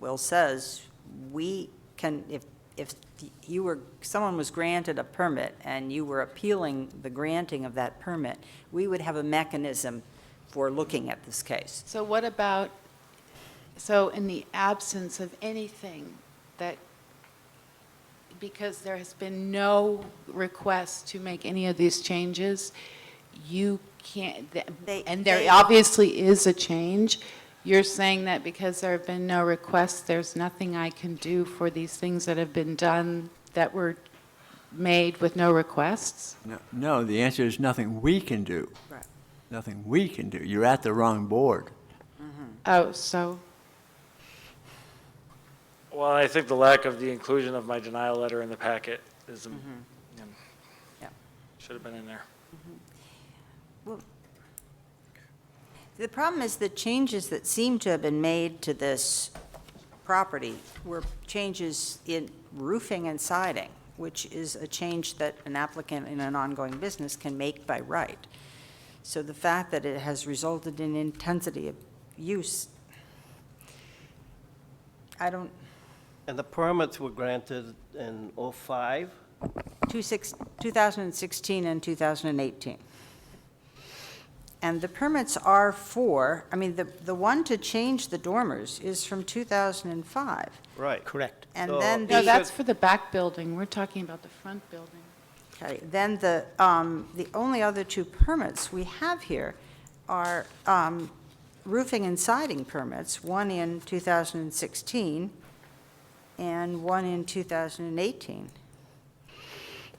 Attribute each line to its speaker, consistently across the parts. Speaker 1: Will says, we can, if, if you were, someone was granted a permit and you were appealing the granting of that permit, we would have a mechanism for looking at this case.
Speaker 2: So what about, so in the absence of anything that, because there has been no request to make any of these changes, you can't, th-
Speaker 1: They-
Speaker 2: and
Speaker 1: they-
Speaker 2: there obviously is a change. You're saying that because there have been no requests, there's nothing I can do for these things that have been done that were made with no requests?
Speaker 3: No- No, the answer is nothing we can do.
Speaker 1: Right.
Speaker 3: Nothing we can do. You're at the wrong board.
Speaker 2: Oh, so,
Speaker 4: Well, I think the lack of the inclusion of my denial letter in the packet is, um,
Speaker 1: Yeah.
Speaker 4: should have been in there.
Speaker 1: The problem is the changes that seem to have been made to this property were changes in roofing and siding, which is a change that an applicant in an ongoing business can make by right. So the fact that it has resulted in intensity of use, I don't,
Speaker 5: And the permits were granted in '05,
Speaker 1: two six- 2016 and 2018. And the permits are for, I mean, the, the one to change the dormers is from 2005.
Speaker 5: right? Correct.
Speaker 1: And then
Speaker 2: no,
Speaker 1: The-
Speaker 2: that's for the back building. We're talking about the front building.
Speaker 1: Okay, then the, um, the only other two permits we have here are um, roofing and siding permits, one in 2016 and one in 2018.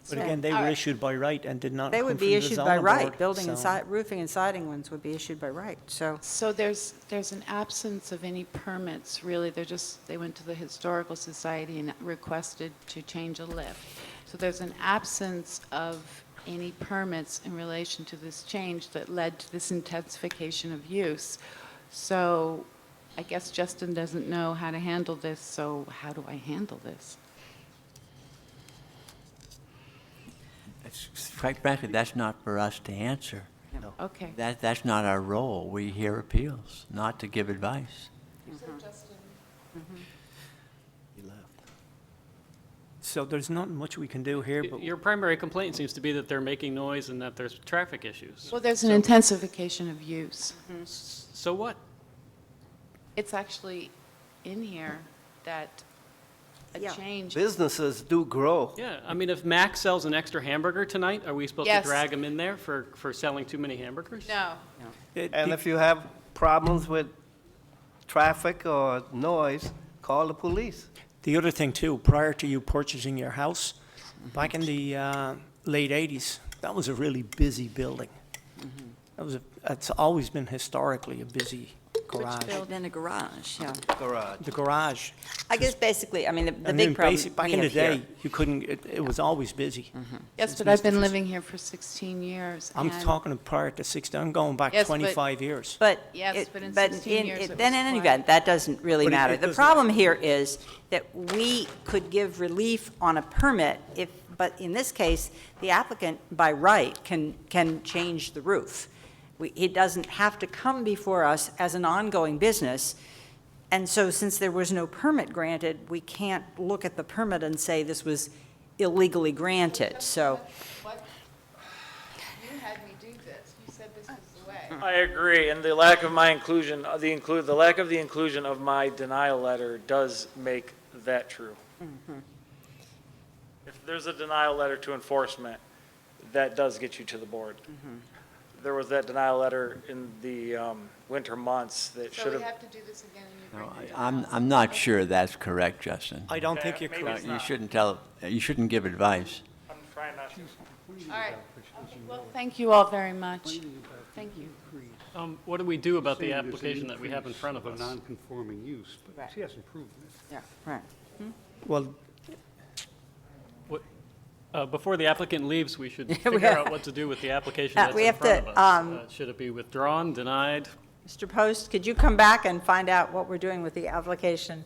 Speaker 6: But again, they
Speaker 2: All
Speaker 6: were
Speaker 2: right.
Speaker 6: issued by right and did not
Speaker 1: They
Speaker 6: come from
Speaker 1: would
Speaker 6: the
Speaker 1: be issued by
Speaker 6: zoning
Speaker 1: right,
Speaker 6: board,
Speaker 1: building and
Speaker 6: so-
Speaker 1: si, roofing and siding ones would be issued by right, so.
Speaker 2: So there's, there's an absence of any permits, really. They're just, they went to the Historical Society and requested to change a lift. So there's an absence of any permits in relation to this change that led to this intensification of use. So I guess Justin doesn't know how to handle this, so how do I handle this?
Speaker 3: It's- Quite frankly, that's not for us to answer.
Speaker 2: Okay.
Speaker 3: That, that's not our role. We hear appeals, not to give advice.
Speaker 6: So there's not much we can do here, but
Speaker 7: Your primary complaint seems to be that they're making noise and that there's traffic issues.
Speaker 2: Well, there's an intensification of use.
Speaker 7: So what?
Speaker 2: It's actually in here that a
Speaker 1: Yeah.
Speaker 2: change
Speaker 5: Businesses do grow.
Speaker 7: Yeah, I mean, if Mac sells an extra hamburger tonight, are we supposed to
Speaker 2: Yes.
Speaker 7: drag him in there for, for selling too many hamburgers?
Speaker 2: No,
Speaker 6: it-
Speaker 5: And
Speaker 6: be-
Speaker 5: if you have problems with traffic or noise, call the police.
Speaker 6: the other thing too, prior to you purchasing your house, back in the uh, late 80s, that was a really busy building.
Speaker 5: Mm-hmm.
Speaker 6: That was, a- it's always been historically a busy garage.
Speaker 1: Built in a garage, yeah.
Speaker 5: Garage.
Speaker 6: The garage.
Speaker 1: I guess basically, I mean, the- the
Speaker 6: And
Speaker 1: big
Speaker 6: then
Speaker 1: problem
Speaker 6: basic- Back
Speaker 1: we
Speaker 6: in the
Speaker 1: have here-
Speaker 6: day, you couldn't, it it was always busy.
Speaker 5: Mm-hmm.
Speaker 2: yes, but I've been living here for 16 years.
Speaker 6: I'm
Speaker 2: and-
Speaker 6: talking prior to 60, I'm going back
Speaker 2: Yes, but-
Speaker 6: 25 years.
Speaker 1: But.
Speaker 2: Yes,
Speaker 1: it-
Speaker 2: but in
Speaker 1: but
Speaker 2: 16
Speaker 1: in-
Speaker 2: years
Speaker 1: it-
Speaker 2: it
Speaker 1: Then
Speaker 2: was
Speaker 1: in any
Speaker 2: quiet.
Speaker 1: event, that doesn't really
Speaker 6: But it-
Speaker 1: matter.
Speaker 6: it
Speaker 1: The
Speaker 6: does
Speaker 1: problem here is that we could give relief on a permit if, but in this case, the applicant by right can, can change the roof. We, he doesn't have to come before us as an ongoing business. And so since there was no permit granted, we can't look at the permit and say this was illegally granted, so.
Speaker 2: What? You had me do this. You said this is the way.
Speaker 4: I agree, and the lack of my inclusion, uh, the include, the lack of the inclusion of my denial letter does make that true. If there's a denial letter to enforcement, that does get you to the board. There was that denial letter in the um, winter months that should
Speaker 2: So we
Speaker 4: have,
Speaker 2: have to do this again and you
Speaker 3: No,
Speaker 2: bring
Speaker 3: I-
Speaker 2: it down.
Speaker 3: I'm, I'm not sure that's correct, Justin.
Speaker 6: I don't think you're
Speaker 4: Maybe
Speaker 6: correct.
Speaker 4: it's
Speaker 3: You
Speaker 4: not.
Speaker 3: shouldn't tell, you shouldn't give advice.
Speaker 4: I'm trying not to.
Speaker 2: All right. Okay, Well, thank you all very much. Thank you.
Speaker 7: Um, what do we do about the
Speaker 8: saying there's an
Speaker 7: application that we have in
Speaker 8: increase
Speaker 7: front of
Speaker 8: a
Speaker 7: us?
Speaker 8: non-conforming use, but she hasn't proven it.
Speaker 1: Yeah, right.
Speaker 6: Well,
Speaker 7: Uh, before the applicant leaves, we should
Speaker 1: we
Speaker 7: figure
Speaker 1: have-
Speaker 7: out what to do with the application
Speaker 1: Uh,
Speaker 7: that's
Speaker 1: we
Speaker 7: in
Speaker 1: have
Speaker 7: front
Speaker 1: to,
Speaker 7: of us.
Speaker 1: um,
Speaker 7: Uh, Should it be withdrawn, denied?
Speaker 1: Mr. Post, could you come back and find out what we're doing with the application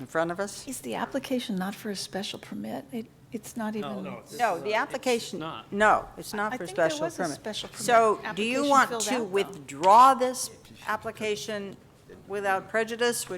Speaker 1: in front of us?
Speaker 9: Is the application not for a special permit? It, it's not even.
Speaker 1: No, the application,
Speaker 7: not.
Speaker 1: no, it's not
Speaker 9: I
Speaker 1: for
Speaker 9: think there
Speaker 1: special permit.
Speaker 9: was a special permit
Speaker 1: So do you
Speaker 9: application
Speaker 1: want
Speaker 9: filled out,
Speaker 1: to
Speaker 9: though.
Speaker 1: withdraw this application without prejudice, which